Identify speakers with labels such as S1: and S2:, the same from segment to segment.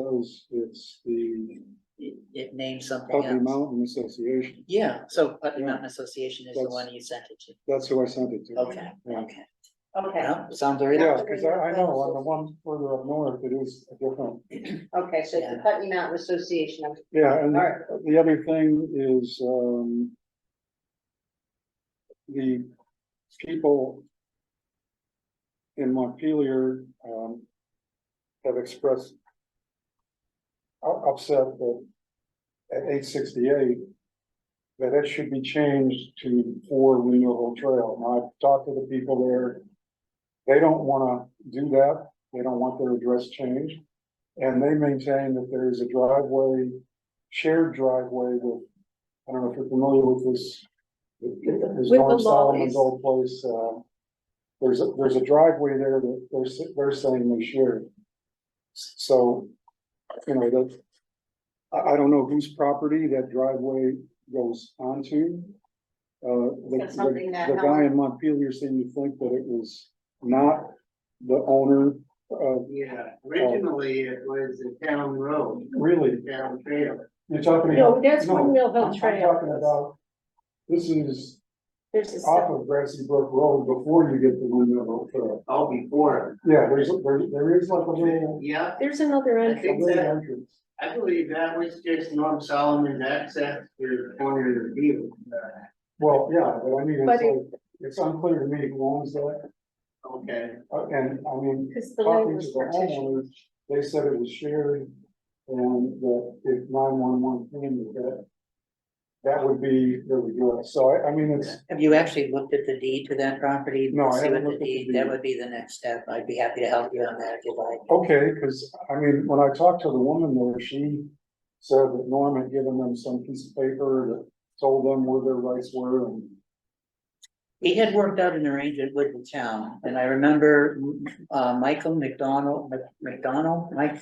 S1: Those is the
S2: It, it names something
S1: Putney
S2: else.
S1: Mountain Association.
S2: Yeah, so Putney
S1: Yeah.
S2: Mountain Association is the
S1: That's-
S2: one you sent it to.
S1: That's who I sent it to.
S2: Okay,
S1: Yeah.
S2: okay.
S3: Okay,
S2: No, sounds very,
S1: Yeah, because I, I know on the one further up north, it is a different.
S3: okay, so it's the
S2: Yeah.
S3: Putney Mountain Association, I'm-
S1: Yeah, and
S3: All right.
S1: the other thing is, um, the people in Montpelier, um, have expressed u- upset that at eight sixty-eight, that it should be changed to four renewable trail. Now, I've talked to the people there. They don't wanna do that. They don't want their address changed. And they maintain that there is a driveway shared driveway with, I don't know if you're familiar with this. There's
S3: the
S1: Norm Solomon's
S3: lollies.
S1: old place, uh, there's, a there's a driveway there that they're, s- they're saying they shared. So, you know, that, I, I don't know whose property that driveway goes onto. Uh, the,
S3: That's
S1: the-
S3: something that
S1: the guy
S3: Helen-
S1: in Montpelier seemed to think that it was not the owner of,
S4: Yeah, originally it was a town road,
S1: really,
S4: town trail.
S1: you're talking about.
S5: No, that's
S1: No,
S5: Windmill
S1: I'm-
S5: Hill
S1: I'm Talking
S5: Trail.
S1: about, this is
S5: There's a, sep-
S1: off of Grassy Brook Road before you get to Windmill Hill Trail.
S4: all before.
S1: Yeah, there's, a- there, there is like a little,
S4: Yeah,
S5: there's another
S4: I
S5: entrance.
S1: a
S4: think
S1: little
S4: that,
S1: entrance.
S4: I believe that was just Norm Solomon's access to the corner of the field. Uh,
S1: Well, yeah, but I mean,
S5: But
S1: it's like, it's unclear to me who owns that,
S4: Okay,
S1: uh, and I mean,
S5: Cause the land
S1: talking
S5: was
S1: to the
S5: partitioned.
S1: homeowners, they said it was shared. And that if nine one one came, that, that would be, there we go, so I, I mean, it's,
S2: have you actually looked at the deed to that property?
S1: No, I
S2: See
S1: haven't
S2: what
S1: looked at the
S2: deed- That
S1: deed.
S2: would be the next step. I'd be happy to help you on that if you'd like.
S1: Okay, because, I mean, when I talked to the woman there, she said that Norm had given them some piece of paper that told them where their rights were and.
S2: He had worked out an arrangement with the town, and I remember, uh, Michael McDonald, Mc- McDonald, Mike.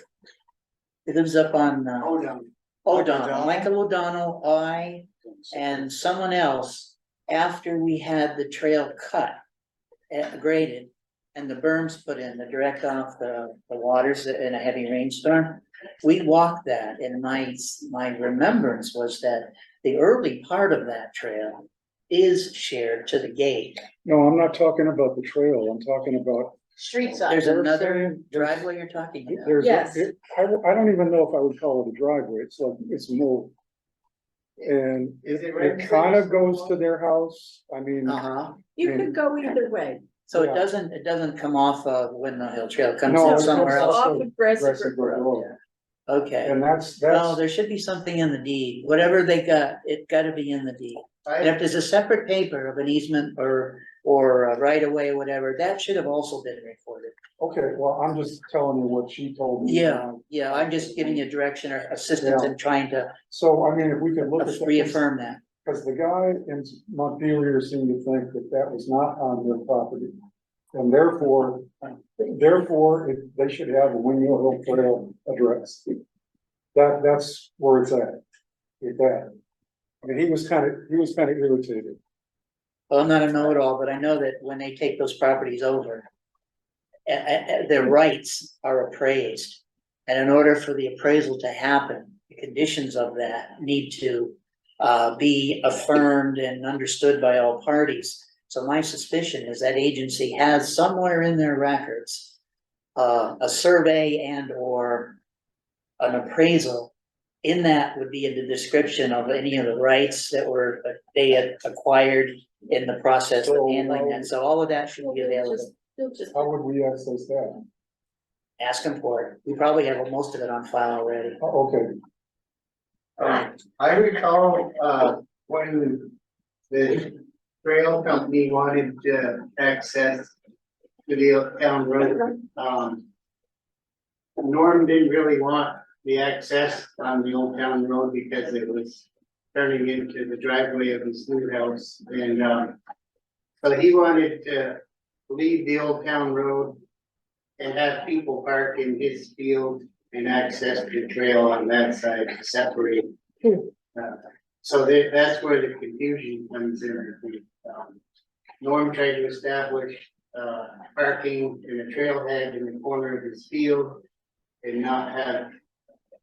S2: He lives up on, uh,
S4: hold on.
S2: O'Donnell, Michael O'Donnell, I, and someone else, after we had the trail cut. eh, graded, and the berms put in, the direct off the, the waters in a heavy rainstorm. We walked that, and my, my remembrance was that the early part of that trail is shared to the gate.
S1: No, I'm not talking about the trail, I'm talking about,
S3: street side.
S2: There's another driveway you're talking about.
S1: there's,
S5: Yes.
S1: it- I, I don't even know if I would call it a driveway, it's like, it's more. And
S4: Is
S1: it,
S4: it right
S1: it kind of
S4: there?
S1: goes to their house, I mean,
S2: Uh-huh,
S5: You could go either way.
S2: so
S1: Yeah.
S2: it doesn't, it doesn't come off of Windmill Hill Trail, it comes
S1: No, it
S2: in
S1: comes
S2: somewhere
S1: off.
S2: else,
S5: Off of Grassy
S1: Grassy
S5: Brook
S1: Brook
S5: Road.
S1: Road.
S2: okay.
S1: and that's,
S2: No,
S1: that's,
S2: Oh, there should be something in the deed, whatever they got, it gotta be in the deed. And
S4: I,
S2: if there's a separate paper of an easement or, or a right of way, whatever, that should have also been recorded.
S1: okay, well, I'm just telling you what she told me.
S2: Yeah. Yeah, I'm just giving you direction or assistance in trying to
S1: So, I mean, if we could look at. that-
S2: reaffirm that.
S1: Because the guy in Montpelier seemed to think that that was not on their property. And therefore, therefore, it- they should have a Windmill Hill Trail address. That, that's where it's at, with that. I mean, he was kind of, he was kind of irritated.
S2: Well, I'm not a know-it-all, but I know that when they take those properties over. a- a- a- their rights are appraised. And in order for the appraisal to happen, the conditions of that need to. Uh, be affirmed and understood by all parties. So my suspicion is that agency has somewhere in their records. Uh, a survey and or an appraisal. In that would be a description of any of the rights that were, that they had acquired in the process of handling that, so all of that should be available.
S5: You'll just-
S1: How would we access that?
S2: Ask them for it, we probably have most of it on file already.
S1: Oh, Okay,
S4: uh, I recall, uh, when the trail company wanted to access to the town road, um. Norm didn't really want the access on the old town road because it was turning into the driveway of his new house and, um. So he wanted to leave the old town road and have people park in his field and access the trail on that side to separate. Uh, So there, that's where the confusion comes in, I think. Um, Norm tried to establish, uh, parking in a trailhead in the corner of his field and not have